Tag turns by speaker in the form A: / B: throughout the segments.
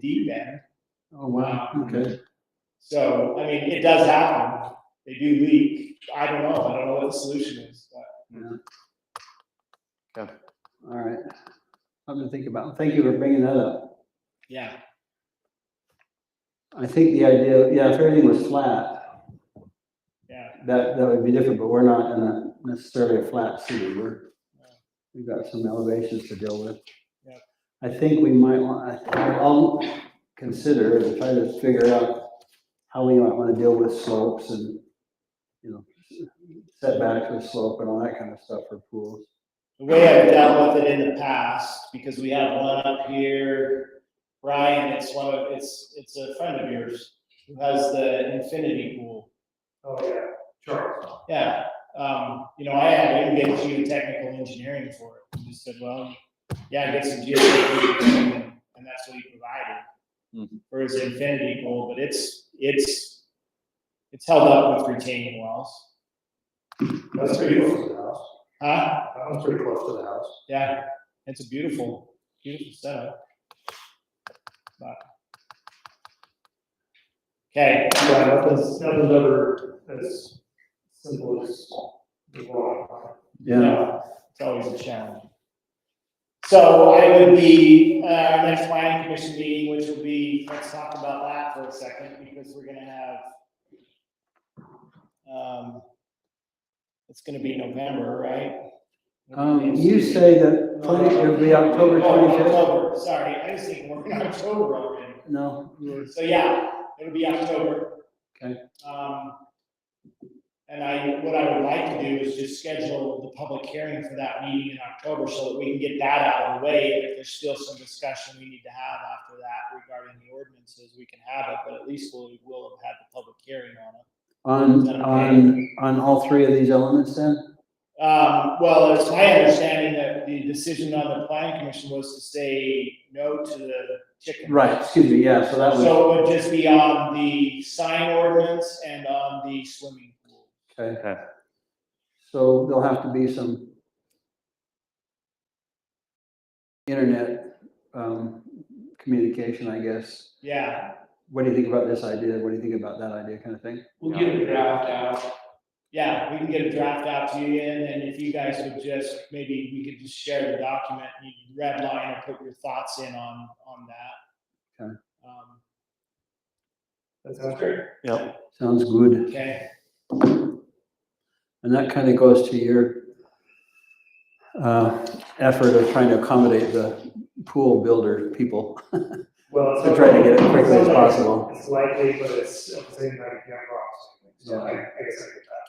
A: deep end.
B: Oh, wow, okay.
A: So, I mean, it does happen. They do leak. I don't know. I don't know what the solution is, but.
B: All right. Something to think about. Thank you for bringing that up.
A: Yeah.
B: I think the idea, yeah, if everything was flat,
A: Yeah.
B: that, that would be different, but we're not in a necessarily a flat city. We're, we've got some elevations to deal with.
A: Yeah.
B: I think we might want, I'll consider and try to figure out how we might want to deal with slopes and, you know, setbacks with slope and all that kind of stuff for pools.
A: The way I've dealt with it in the past, because we have one up here, Brian, it's one of, it's, it's a friend of yours who has the infinity pool.
C: Oh, yeah, Charles.
A: Yeah, um, you know, I had him get geotechnical engineering for it. He just said, well, yeah, get some geotechnical, engineering," and that's what he provided
B: Mhm.
A: for his infinity pool, but it's, it's, it's held up with retaining walls.
C: That's pretty close to the house.
A: Huh?
C: That one's pretty close to the house.
A: Yeah, it's a beautiful, beautiful setup. But- Okay,
C: Yeah, nothing's, nothing's ever as simple as the law.
B: Yeah.
A: No, It's always a challenge. So I would be, uh, our next planning commission meeting, which will be, let's talk about that for a second, because we're gonna have, um, it's gonna be November, right?
B: Um, you say that planning, it'll be October
A: Oh,
B: twenty-fifth?
A: October, Sorry, I was thinking we're in October already.
B: No,
A: So yeah, it'll be October.
B: Okay.
A: Um, and I, what I would like to do is just schedule the public hearing for that meeting in October so that we can get that out of the way. If there's still some discussion we need to have after that regarding the ordinances, we can have it, but at least we'll, we'll have had the public hearing on it.
B: on, on, on all three of these elements then?
A: Um, well, it's my understanding that the decision on the planning commission was to say no to the chicken.
B: Right, excuse me, yeah, so that was,
A: So it would just be on the sign ordinance and on the swimming pool.
B: okay. So there'll have to be some internet, um, communication, I guess.
A: Yeah,
B: What do you think about this idea? What do you think about that idea kind of thing?
C: We'll get a draft out.
A: yeah, we can get a draft out to you and then if you guys would just, maybe we could just share the document and you can red line or put your thoughts in on, on that.
B: Okay.
A: Um,
C: That sounds great.
B: Sounds good.
A: Okay,
B: And that kind of goes to your uh, effort of trying to accommodate the pool builder people.
C: Well, it's
B: So try to get it
C: not-
B: quickly as
C: it's not like
B: possible.
C: It's likely, but it's at the same time, yeah, wrong. So I, I guess I get that.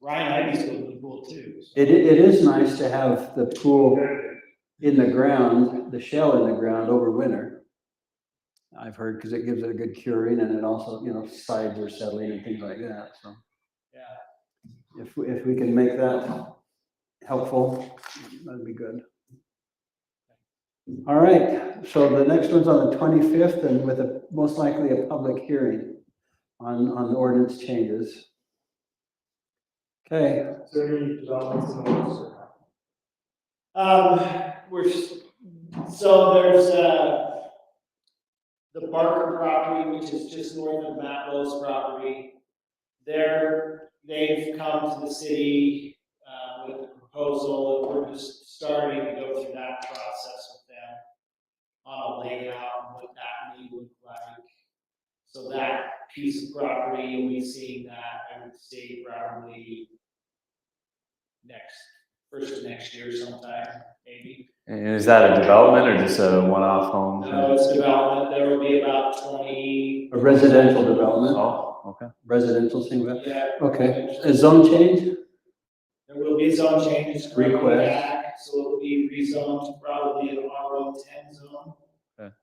A: Ryan Ivy's building the pool too. so-
B: It, it is nice to have the pool
C: Good.
B: in the ground, the shell in the ground over winter. I've heard, because it gives it a good curing and it also, you know, sides are settling and things like that, so.
A: Yeah,
B: If, we- if we can make that helpful, that'd be good. All right, so the next one's on the twenty-fifth and with a, most likely a public hearing on, on the ordinance changes. Okay,
C: Is there any developments in the works or not?
A: um, we're, s- so there's, uh, the Barker property, which is just north of Matt Lowe's property. They're, they've come to the city, uh, with a proposal, and we're just starting to go through that process with them. On a layout, and what that may look like. So that piece of property, and we seeing that, I would say probably next, first of next year sometime, maybe.
D: And is that a development or just a one-off home?
A: No, it's development, there will be about twenty,
B: a residential development,
D: Oh, okay.
B: residential single,
A: yeah,
B: okay, a zone change?
A: there will be zone changes. coming
B: Request.
A: back, So it'll be rezoned to probably an R one ten zone.
D: Okay.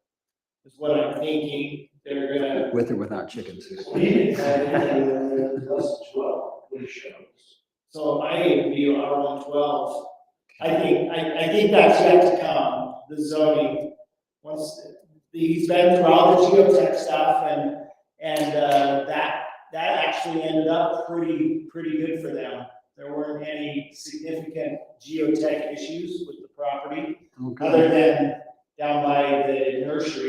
A: Is what I'm thinking, they're gonna.
B: With or without chickens?
C: And Plus twelve, we shows.
A: So my view, R one twelve, I think, I, I think that's yet to come, the zoning. Once, he's been through all the geotech stuff and, and, uh, that, that actually ended up pretty, pretty good for them. There weren't any significant geotech issues with the property,
B: Okay.
A: other than down by the nursery